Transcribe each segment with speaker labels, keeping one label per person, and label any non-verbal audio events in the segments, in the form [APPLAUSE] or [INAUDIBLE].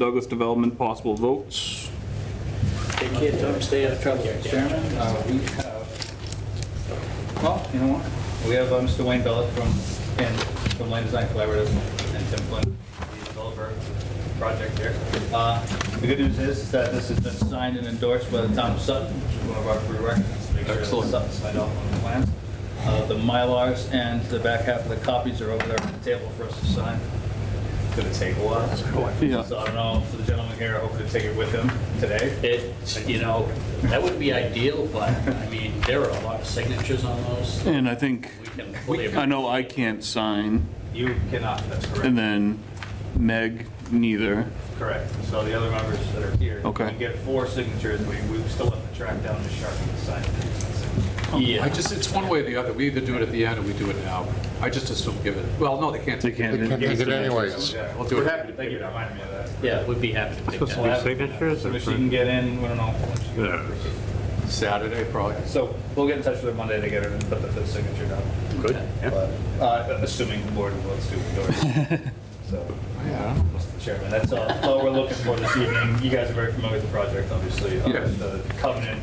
Speaker 1: Douglas Development, possible votes.
Speaker 2: Take care, don't stay out of trouble.
Speaker 3: Chairman, uh, we have, well, you know what? We have uh, Mr. Wayne Bellet from, and from Land Design Collaborative and Tim Flynn, the developer project here. Uh, The good news is is that this has been signed and endorsed by the town of Sutton, which is one of our prerequisites. to make sure that
Speaker 4: Excellent.
Speaker 3: Sutton signed off on the plans. Uh, The Mylars and the back half of the copies are over there on the table for us to sign. Gonna take a while.
Speaker 4: Yeah.
Speaker 3: So I don't know, for the gentleman here, I hope to take it with him today.
Speaker 2: It, you know, that would be ideal, but, I mean, there are a lot of signatures on those.
Speaker 1: And I think,
Speaker 2: We can
Speaker 1: I know I can't sign,
Speaker 3: You cannot, that's correct.
Speaker 1: and then Meg neither.
Speaker 3: Correct. So the other members that are here.
Speaker 1: Okay.
Speaker 3: You get four signatures, we, we still have to track down the shark and sign it.
Speaker 4: I
Speaker 2: Yeah,
Speaker 4: just, it's one way or the other. We either do it at the end or we do it now. I just assume give it, well, no, they can't.
Speaker 1: They can't.
Speaker 5: They can't do it anyways.
Speaker 3: Yeah,
Speaker 4: We'll do it.
Speaker 3: We're happy to take it, remind me of that.
Speaker 2: yeah, we'd be happy to take
Speaker 3: We'll
Speaker 2: that.
Speaker 3: have-
Speaker 6: signatures
Speaker 3: So
Speaker 6: or
Speaker 3: if she can get in, we don't know. when she can-
Speaker 4: Saturday, probably.
Speaker 3: So we'll get in touch with her Monday to get her to put the fifth signature down.
Speaker 6: Good.
Speaker 3: But, Uh, assuming the board votes to endorse.
Speaker 6: [LAUGHS]
Speaker 3: So,
Speaker 4: Yeah.
Speaker 3: Mr. Chairman, that's all, that's all we're looking for this evening. You guys are very familiar with the project, obviously. Uh,
Speaker 4: Yes.
Speaker 3: The covenant,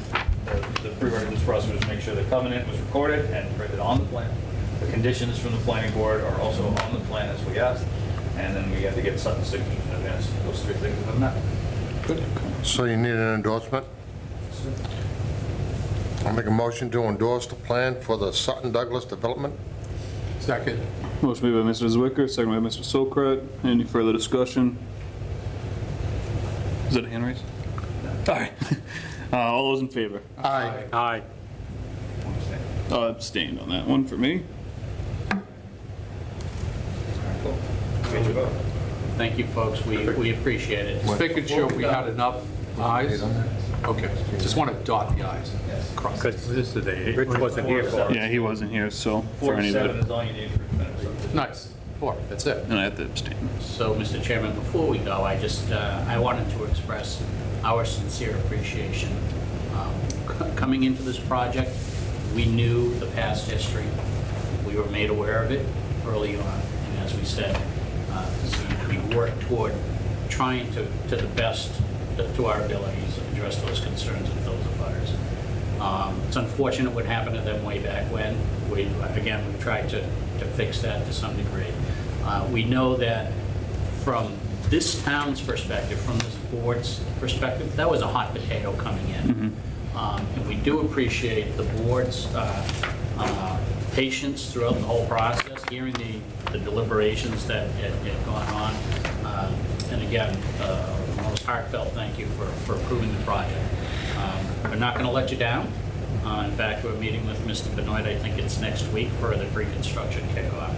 Speaker 3: the- the prerequisites for us was to make sure the covenant was recorded and printed on the plan. The conditions from the planning board are also on the plan as we asked. And then we had to get Sutton's signature in advance. Those three things have been met.
Speaker 5: So you need an endorsement? I'll make a motion to endorse the plan for the Sutton Douglas development.
Speaker 4: Second.
Speaker 1: Motion made by Mr. Zwicker, second by Mr. Sokrat. Any further discussion? Is that a hand raise? All right. [LAUGHS] Uh, All those in favor?
Speaker 5: Aye.
Speaker 6: Aye.
Speaker 3: Understand?
Speaker 1: Uh, Abstained on that one for me.
Speaker 3: Cool. Get your vote.
Speaker 2: Thank you, folks, we, we appreciate it.
Speaker 4: Just making sure we had enough eyes. Okay, just want to dot the i's.
Speaker 3: Yes.
Speaker 4: Cross.
Speaker 6: Because this is a, Rich wasn't here for it.
Speaker 1: Yeah, he wasn't here, so for
Speaker 3: Four to
Speaker 1: any of
Speaker 3: seven
Speaker 1: it,
Speaker 3: is all you need for a minute.
Speaker 4: Nice. Four, that's it.
Speaker 1: and I have to abstain.
Speaker 2: So, Mr. Chairman, before we go, I just, uh, I wanted to express our sincere appreciation. Um, c- Coming into this project, we knew the past history. We were made aware of it early on, and as we said, uh, we worked toward trying to, to the best, to our abilities, address those concerns with those abutters. Um, It's unfortunate what happened to them way back when. We, again, we tried to, to fix that to some degree. Uh, We know that from this town's perspective, from this board's perspective, that was a hot potato coming in. Um, And we do appreciate the board's uh, uh, patience throughout the whole process, hearing the the deliberations that had had gone on. Uh, And again, uh, the most heartfelt thank you for for approving the project. Um, We're not going to let you down. Uh, In fact, we're meeting with Mr. Benoit, I think it's next week, for the pre-construction kickoff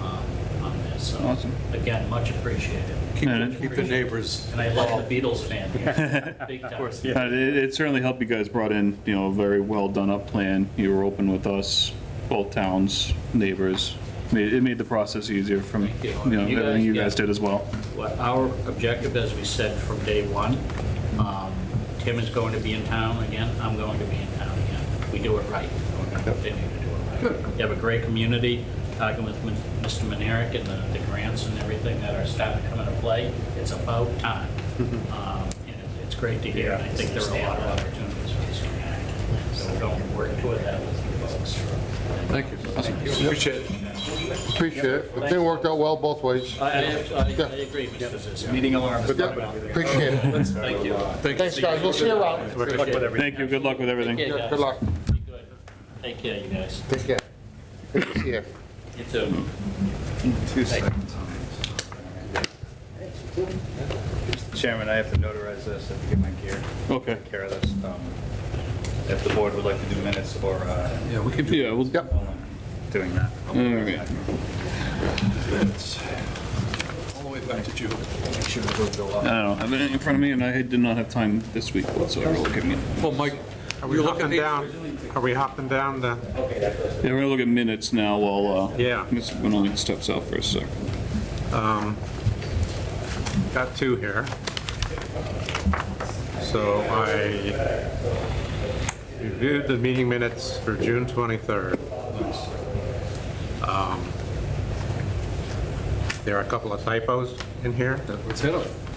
Speaker 2: um, on this. So,
Speaker 1: Awesome.
Speaker 2: Again, much appreciated.
Speaker 4: Keep
Speaker 1: Yeah.
Speaker 4: the- keep the neighbors.
Speaker 2: And I love the Beatles fan here, big time.
Speaker 1: Uh, It it certainly helped you guys brought in, you know, a very well done up plan. You were open with us, both towns, neighbors. Made- It made the process easier from,
Speaker 2: Thank
Speaker 1: you
Speaker 2: you.
Speaker 1: know,
Speaker 2: You
Speaker 1: everything
Speaker 2: guys-
Speaker 1: you
Speaker 2: yeah.
Speaker 1: guys did as well.
Speaker 2: What our objective, as we said from day one, um, Tim is going to be in town again, I'm going to be in town again. We do it right. We're going to continue to do it right. You have a great community, talking with Min- Mr. Manerick and the- the grants and everything that are starting to come into play. It's about time. Um, And it's- it's great to hear, and I think there are a lot of opportunities for this community. So we're going to work toward that with you folks.
Speaker 4: Thank you. Appreciate it.
Speaker 5: Appreciate it. The thing worked out well both ways.
Speaker 2: Uh, I agree, Mr. Zissou.
Speaker 3: Meeting alarm is
Speaker 5: Yep,
Speaker 3: going off.
Speaker 5: appreciate it.
Speaker 2: Thank you.
Speaker 5: Thanks, guys. We'll see you around.
Speaker 3: Good luck with everything.
Speaker 1: Thank you, good luck with everything.
Speaker 2: Yeah,
Speaker 5: Good luck.
Speaker 2: Be good. Take care, you guys.
Speaker 5: Take care. Good to see you.
Speaker 2: You too.
Speaker 3: Two seconds. Chairman, I have to notarize this, I have to get my gear,
Speaker 1: Okay.
Speaker 3: take care of this. Um, If the board would like to do minutes or uh,
Speaker 4: Yeah, we can do
Speaker 1: Yeah, well,
Speaker 5: Yep.
Speaker 3: doing that.
Speaker 1: Okay.
Speaker 4: all the way back to June.
Speaker 1: I don't have it in front of me, and I did not have time this week whatsoever looking at.
Speaker 4: Well, Mike,
Speaker 6: Are we
Speaker 4: you looking
Speaker 6: hopping
Speaker 4: down?
Speaker 6: down, are we hopping down the,
Speaker 1: Yeah, we're gonna look at minutes now while, uh,
Speaker 6: Yeah.
Speaker 1: Mr. Benoit steps out for a sec.
Speaker 6: got two here. So I reviewed the meeting minutes for June 23rd. Um, There are a couple of typos in here.
Speaker 4: Let's hit them.